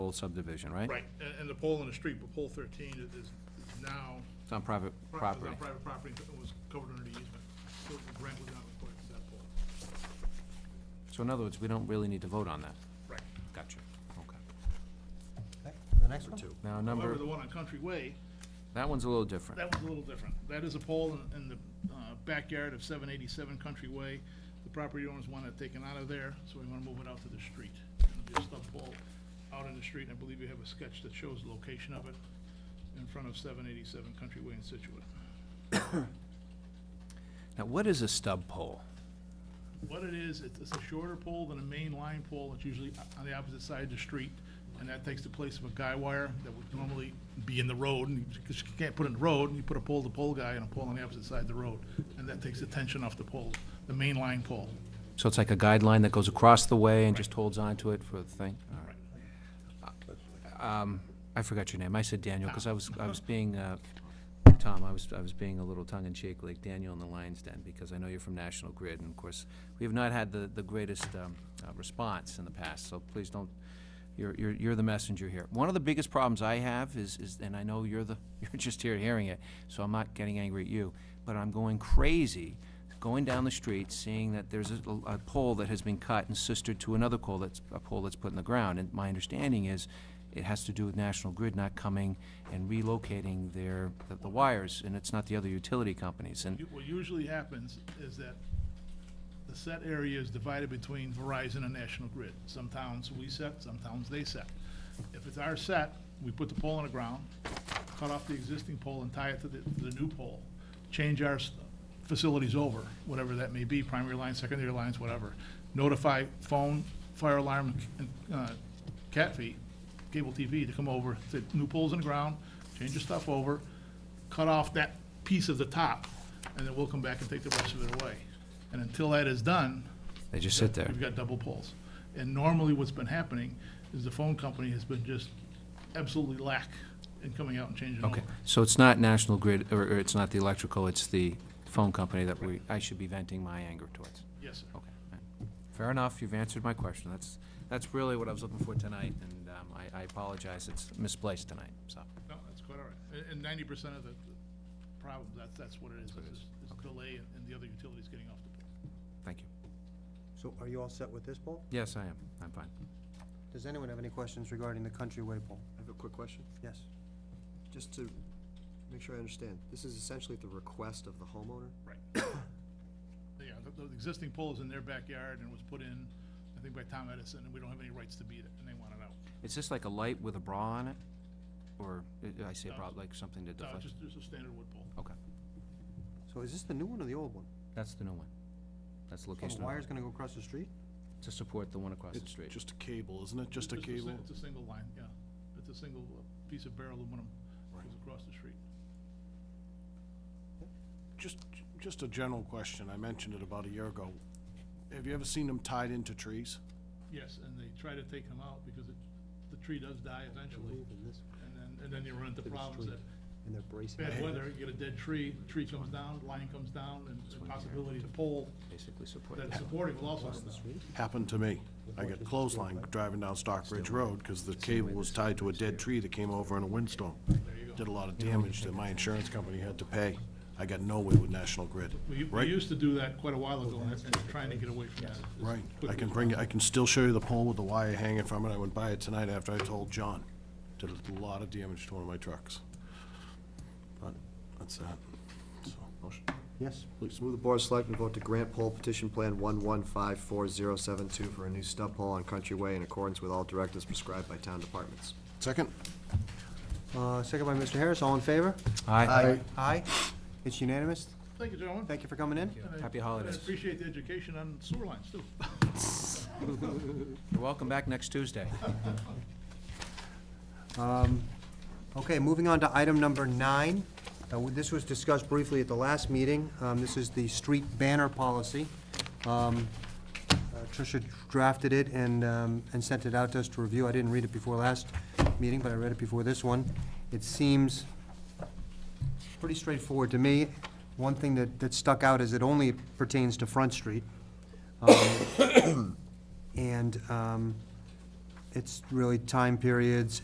whole subdivision, right? Right, and, and the pole in the street, but pole thirteen is, is now. It's on private pri- is property. on private property, but it was covered under the easement, so the grant was not required for that pole. So in other words, we don't really need to vote on that. Right. Gotcha. Okay. Okay, The next one? Now, However, number, the one on Country Way, that one's a little different. That was a little different. That is a pole in, in the uh, backyard of seven eighty-seven Country Way. The property owners want it taken out of there, so we wanna move it out to the street. It'll be a stub pole out in the street, and I believe you have a sketch that shows the location of it in front of seven eighty-seven Country Way in Situate. Now, what is a stub pole? What it is, it's, it's a shorter pole than a main line pole. It's usually o- on the opposite side of the street, and that takes the place of a guy wire that would normally be in the road, and you just can't put it in the road, and you put a pole-to-pole guy and a pole on the opposite side of the road, and that takes the tension off the pole, the main line pole. So it's like a guideline that goes across the way and just holds on to it for the thing? All right. Um, I forgot your name. I said Daniel, because I was, I was being, uh, Tom, I was, I was being a little tongue-in-cheek, like Daniel in the Lions Den, because I know you're from National Grid, and of course, we have not had the, the greatest um, uh, response in the past, so please don't, you're, you're, you're the messenger here. One of the biggest problems I have is, is, and I know you're the, you're just here hearing it, so I'm not getting angry at you, but I'm going crazy going down the street, seeing that there's a, a pole that has been cut and sistered to another pole that's, a pole that's put in the ground. And my understanding is, it has to do with National Grid not coming and relocating their, the- the wires, and it's not the other utility companies. And U- What usually happens is that the set area is divided between Verizon and National Grid. Some towns we set, some towns they set. If it's our set, we put the pole on the ground, cut off the existing pole and tie it to the, to the new pole, change our s- facilities over, whatever that may be, primary lines, secondary lines, whatever. Notify phone, fire alarm, and, uh, cat feet, cable TV to come over, say, new pole's on the ground, change your stuff over, cut off that piece of the top, and then we'll come back and take the rest of it away. And until that is done, they just sit there. we've got double poles. And normally what's been happening is the phone company has been just absolutely lack in coming out and changing over. Okay, so it's not National Grid, or, or it's not the electrical, it's the phone company that we, I should be venting my anger towards. Yes, sir. Okay, all right. fair enough, you've answered my question. That's, that's really what I was looking for tonight, and, um, I, I apologize, it's misplaced tonight, so. No, that's quite all right. And- And ninety percent of the the problem, that's, that's what it is, is is delay and- and the other utilities getting off the pole. Thank you. So are you all set with this poll? Yes, I am. I'm fine. Does anyone have any questions regarding the Countryway poll? I have a quick question, Yes. just to make sure I understand. This is essentially at the request of the homeowner? Right. Yeah, the, the existing pole is in their backyard and was put in, I think by Tom Edison, and we don't have any rights to beat it, and they want it out. Is this like a light with a bra on it? Or, uh, I- I say No, bra, it's- like something to No, it's deflect? Uh, just, just a standard wood pole. Okay, So is this the new one or the old one? that's the new one. That's the So the location of wire's it, gonna go across the street? to support the one across the street. Just a cable, isn't it? Just a si- cable? It's a single line, yeah. It's a single uh, piece of bare aluminum goes across the street. Just, just a general question. I mentioned it about a year ago. Have you ever seen them tied into trees? Yes, and they try to take them out because it, the tree does die eventually, Moving this way and then, and then you run into to the problems street, that And they're bracing. bad weather, you get a dead tree, tree comes down, line comes down, and the possibility the pole Basically support that's that. supporting will also come down. Happened to me. I got clothesline driving down Stockbridge Road because the cable was tied to a dead tree that came over in a windstorm. Did a lot of damage that my insurance company had to pay. I got nowhere with National Grid. We, we Right. used to do that quite a while ago, and and trying to get away from that. as Right. I quickly can as bring, I can still show you the pole with the wire hanging from it. I went by it tonight after I told John. Did a lot of damage to one of my trucks. But that's that. So, motion. Yes. Please move the Board of Selectmen vote to grant poll petition plan one-one-five-four-zero-seven-two for a new stub pole on Country Way in accordance with all directives prescribed by town departments. Second? Uh, second by Mr. Harris, all in favor? Aye. Aye. It's unanimous. possible. Thank you, gentlemen. Thank you for coming in. And I- Happy holidays. and I appreciate the education on sewer lines, too. You're welcome back next Tuesday. Um, Okay, moving on to item number nine. Uh, w- This was discussed briefly at the last meeting. Um, This is the street banner policy. Um, uh, Tricia drafted it and, um, and sent it out to us to review. I didn't read it before last meeting, but I read it before this one. It seems pretty straightforward to me. One thing that, that stuck out is it only pertains to Front Street. Um, And um, it's really time periods